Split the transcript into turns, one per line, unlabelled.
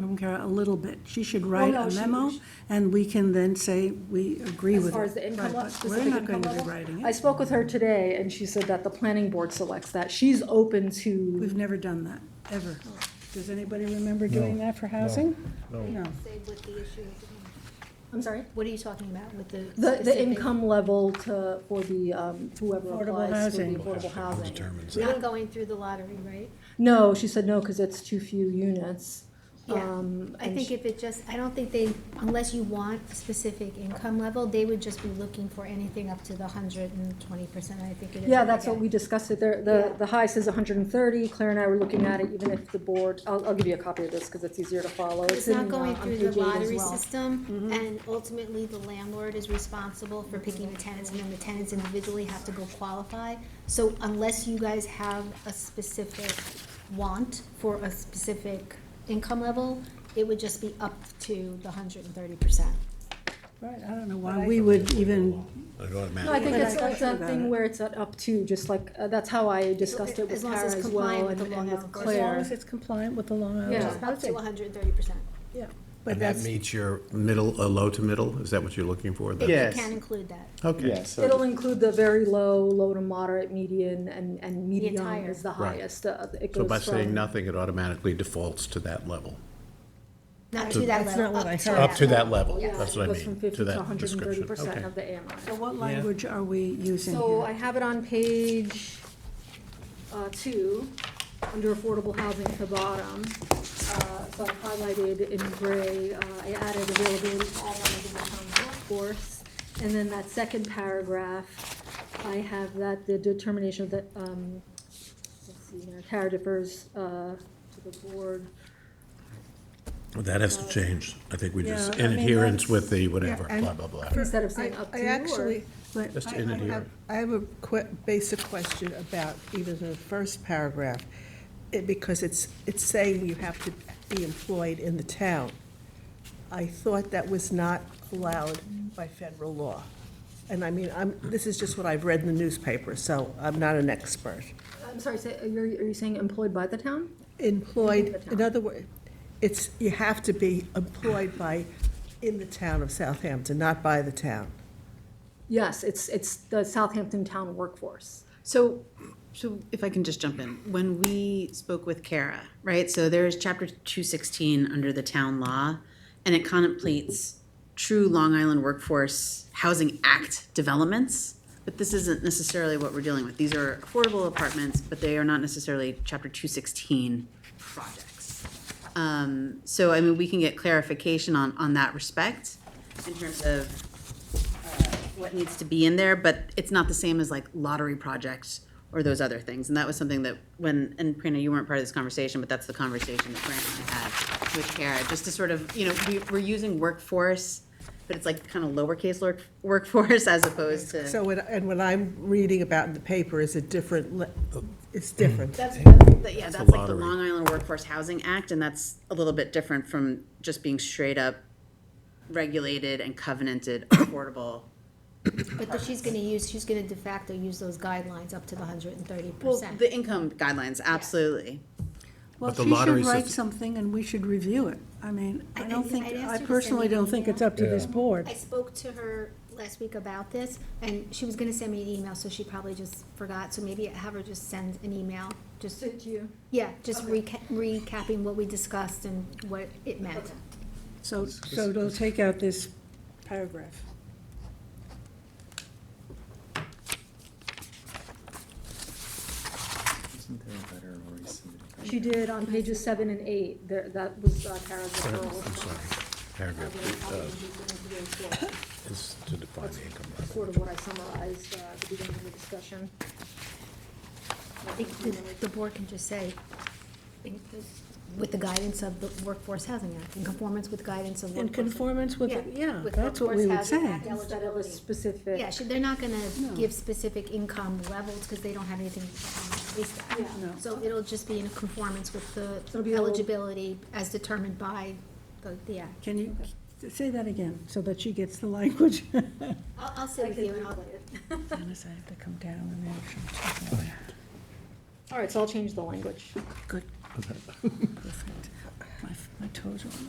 from Kara a little bit. She should write
no,
a
she-
memo,
she-
and we can then say we agree with it.
As far as the income
Right,
level,
but
specific income
We're not going to
level?
be writing
I
it.
spoke with her today, and she said that the planning board selects that. She's open to,
We've never done that, ever. Does anybody remember doing that for housing? No.
Say what the issue is. again.
I'm sorry,
What are you talking about with the?
the, the
specific-
income level to, for the, um, whoever
Affordable
applies for the
housing.
affordable housing.
Not going through the lottery, right?
No, she said no, because it's too few units.
Yeah.
Um,
I
and
think
she-
if it just, I don't think they, unless you want a specific income level, they would just be looking for anything up to the hundred and twenty percent, I think it is.
Yeah, that's what
Yeah.
we discussed it there. The, the high says hundred and thirty. Claire and I were looking at it, even if the board, I'll, I'll give you a copy of this because it's easier to follow.
It's
in,
not going
uh, on
through the
page eight as
lottery
well.
system, and ultimately, the landlord is responsible for picking the tenants, and then the tenants individually have to go qualify. So unless you guys have a specific want for a specific income level, it would just be up to the hundred and thirty percent.
Right, I don't know why we would even,
It ought to
No, I
matter.
think
But
it's,
I-
it's that
about
thing
it.
where it's at up to, just like, uh, that's how I discussed it with
As long as
Kara
it's
as
compliant
well and
with the
and
law,
with
as
as long
Claire.
as it's compliant with the law.
Yeah.
Just up to hundred and thirty percent.
Yeah. But
And that
that's,
meets your middle, uh, low to middle? Is that what you're looking for? That-
Yes.
You can include that.
Okay.
Yeah, so
It'll include the very low, low to moderate, median, and, and median
entire.
is the
Right.
highest. uh, It
So
goes
by
from.
saying nothing, it automatically defaults to that level?
Not to that level.
That's not what
up
I
to
heard.
Up to that
level.
level,
Yeah,
that's
it
what I
goes from
mean,
50
to that
hundred and
description.
thirty percent
Okay.
of the AMI.
so what language are we using
So I
here?
have it on page uh, two, under affordable housing at the bottom. Uh, So I highlighted in gray, uh, I added availability to all members of the town workforce. And then that second paragraph, I have that the determination of the, um, let's see, here, CARE differs uh, to the board.
Well, That has to change. I think we just,
Yeah, I
in
mean,
adherence
that's-
with the whatever,
Yeah, and-
blah, blah, blah.
Instead of saying
I-
up
I
to or-
actually-
But
Just
I-
in
I
adherence.
have- I have a que- basic question about even the first paragraph, it- because it's, it's saying you have to be employed in the town. I thought that was not allowed by federal law. And I mean, I'm, this is just what I've read in the newspaper, so I'm not an expert.
I'm sorry, say- are you are you saying employed by the town? In the
Employed,
town.
in other words, it's, you have to be employed by, in the town of Southampton, not by the town.
Yes, it's, it's the Southampton town workforce.
So, so if I can just jump in, when we spoke with Kara, right, so there's chapter two sixteen under the town law, and it contemplates true Long Island Workforce Housing Act developments, but this isn't necessarily what we're dealing with. These are affordable apartments, but they are not necessarily chapter two sixteen projects. Um, so, I mean, we can get clarification on, on that respect in terms of uh, what needs to be in there, but it's not the same as like lottery projects or those other things. And that was something that when, and Prina, you weren't part of this conversation, but that's the conversation that Brent and I had with Kara, just to sort of, you know, we, we're using workforce, but it's like kind of lowercase work, workforce as opposed to.
So, when- and what I'm reading about in the paper is a different, le- it's different.
That's, that's, yeah, that's like the
lottery.
Long Island Workforce Housing Act, and that's a little bit different from just being straight up regulated and covenanted affordable.
But that she's gonna use, she's gonna de facto use those guidelines up to the hundred and thirty
Well,
percent.
the income guidelines, absolutely.
Well,
But the
she
lottery
should write
system-
something and we should review it. I mean, I
I-
don't
I-
think,
I'd
I
ask her to send
personally
me an
don't think
email.
it's up to this board.
I spoke to her last week about this, and she was gonna send me an email, so she probably just forgot, so maybe have her just send an email, just,
Did you?
yeah, just reca- recapping what we discussed and what it meant.
So, so it'll take out this paragraph.
Isn't there a better or rescinded?
She did on pages seven and eight, there, that was uh, Kara's
I'm
referral.
sorry, paragraph uh,
Uh, she's going to do it for-
is to define the income level.
Sort of what I summarized uh, at the beginning of the discussion.
I think the- the board can just say, in- with the guidance of the Workforce Housing Act, in conformance with guidance of
In
workforce.
conformance with,
Yeah,
yeah,
with
that's what we
Workforce
would
Housing
say.
Act
Instead of a
eligibility.
specific.
Yeah, should, they're not gonna give specific income levels, because they don't have anything um, based on.
No.
So it'll just be in conformance with the
It'll be a little-
eligibility as determined by the, the act.
Can you say that again, so that she gets the language?
I'll, I'll sit with you and I'll.
Unless I have to come down and actually.
All right, so I'll change the language.
Good. Perfect. My f- My toes are on the